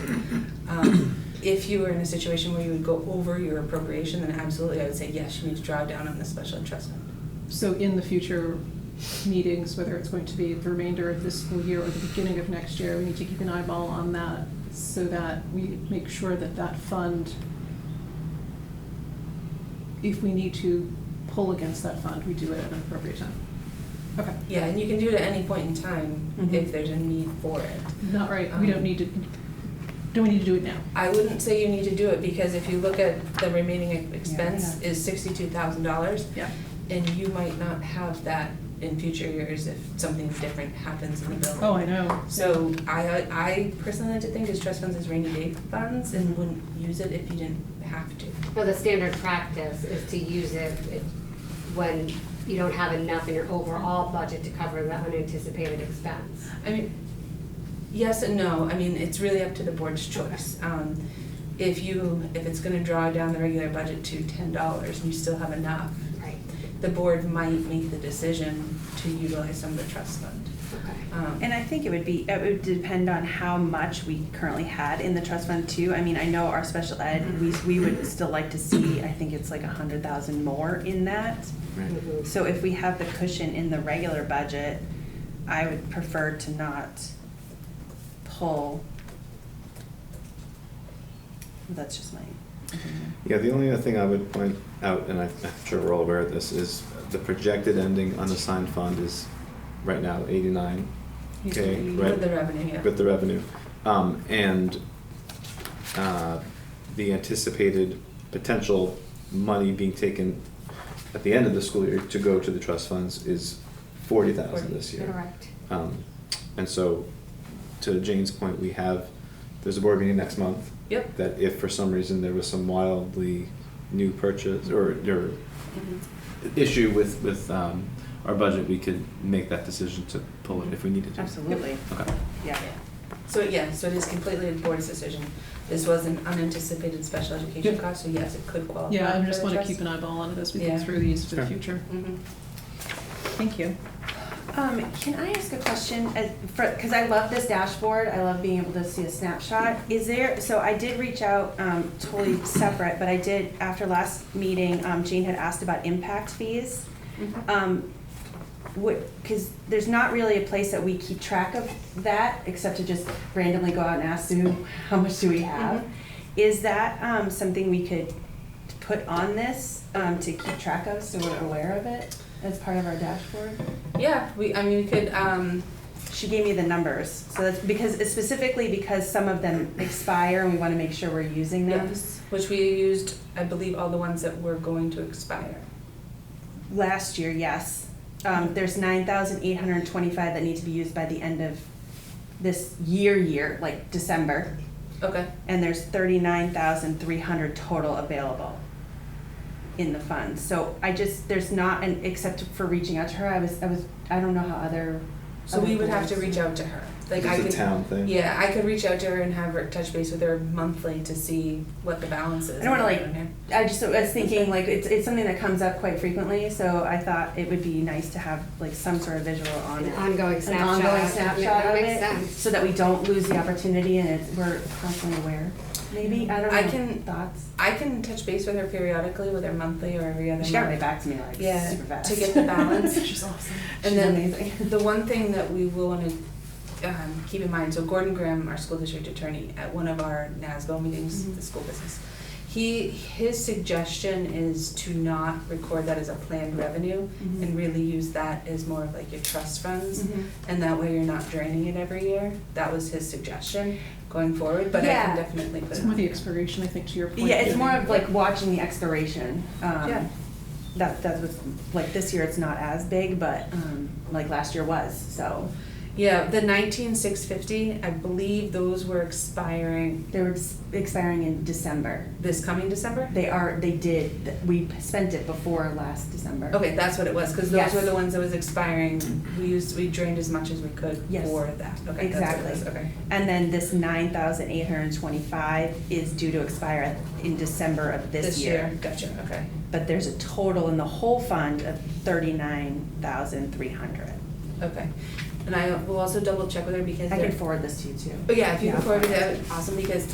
Um, if you were in a situation where you would go over your appropriation, then absolutely, I would say, yes, you need to draw down on the special interest fund. So in the future meetings, whether it's going to be the remainder of this school year or the beginning of next year, we need to keep an eyeball on that so that we make sure that that fund, if we need to pull against that fund, we do it at an appropriate time. Okay, Yeah, and you can do it at any point in time Mhm. if there's a need for it. not right, we don't need to, don't we need to do it now? I wouldn't say you need to do it because if you look at the remaining ex- expense is sixty-two thousand dollars Yeah. and you might not have that in future years if something different happens in the building. Oh, I know. So I, I personally like to think is trust funds as rainy day funds and wouldn't use it if you didn't have to. Well, the standard practice is to use it if- when you don't have enough in your overall budget to cover the unanticipated expense. I mean, yes and no, I mean, it's really up to the board's choice. Um, if you, if it's gonna draw down the regular budget to ten dollars and you still have enough, Right. the board might make the decision to utilize some of the trust fund. Okay. Um, And I think it would be, it would depend on how much we currently had in the trust fund too. I mean, I know our special ed, we, we would still like to see, I think it's like a hundred thousand more in that. Mhm. So if we have the cushion in the regular budget, I would prefer to not pull. That's just my opinion. Yeah, the only other thing I would point out, and I- I'm sure we're all aware of this, is the projected ending unassigned fund is right now eighty-nine K, Usually- right? With the revenue, yeah. With the revenue. Um, and, uh, the anticipated potential money being taken at the end of the school year to go to the trust funds is forty thousand this year. Correct. Um, and so, to Jane's point, we have, there's a board meeting next month. Yep. That if for some reason there was some wildly new purchase or, or Mm-hmm. issue with, with, um, our budget, we could make that decision to pull it if we needed to. Absolutely, Okay. yeah. So, yeah, so it is completely the board's decision. This was an unanticipated special education Yeah. cost, so yes, it could qualify Yeah, I for just the want to trust. keep an eyeball on it as we Yeah. think through these for the Sure. future. Mhm. Thank you. Um, can I ask a question, as, for, cause I love this dashboard, I love being able to see a snapshot, is there, so I did reach out, um, totally separate, but I did, after last meeting, um, Jane had asked about impact fees. Mm-hmm. Um, what, cause there's not really a place that we keep track of that, except to just randomly go out and ask Sue, how much do we have? Mhm. Is that, um, something we could put on this, um, to keep track of, so we're aware of it, as part of our dashboard? Yeah, we, I mean, we could, um, She gave me the numbers, so that's because, specifically because some of them expire and we wanna make sure we're using them. which we used, I believe, all the ones that were going to expire. Last year, yes, um, there's nine thousand eight hundred and twenty-five that need to be used by the end of this year, year, like December. Okay, And there's thirty-nine thousand three hundred total available in the fund. So I just, there's not, an except for reaching out to her, I was, I was, I don't know how other. so we would have to reach out to her. Like I It's a could, town thing. yeah, I could reach out to her and have her touch base with her monthly to see what the balance is. I don't wanna, like, Yeah. I just I was thinking like it's it's something that comes up quite frequently, so I thought it would be nice to have like some sort of visual on An it. ongoing An snapshot. ongoing snapshot That of makes it, sense. so that we don't lose the opportunity and it's, we're constantly aware, maybe, I don't know, I can- thoughts? I can touch base with her periodically, whether monthly or every other month. She got right back to me like Yeah, super fast. to get the balance. She's awesome. And She's then- amazing. The one thing that we will want to um, keep in mind, so Gordon Graham, our school district attorney, at one of our NASBO meetings, Mhm. the school business, he, his suggestion is to not record that as a planned revenue and really use that as more of like your trust funds, Mhm. and that way you're not draining it every year. That was his suggestion going forward, but I Yeah. can definitely put It's it more on. the expiration, I think, to your point. Yeah, it's more of like watching the expiration. um, Yeah. That, that's what's, like this year it's not as big, but um, like last year was, so Yeah, the nineteen six fifty, I believe those were expiring they were s- expiring in December. this coming December? They are, they did, we spent it before last December. Okay, that's what it was, because those Yes. were the ones that was expiring. We used, we drained as much as we could Yes. for that. Okay, that's what it was, Exactly. okay. And then this nine thousand eight hundred and twenty-five is due to expire in December of this year. Gotcha, okay. But there's a total in the whole fund of thirty-nine thousand three hundred. Okay. And I will also double check with her because I can there, forward this to you too. but yeah, if you Yeah. can forward it, that would be awesome, because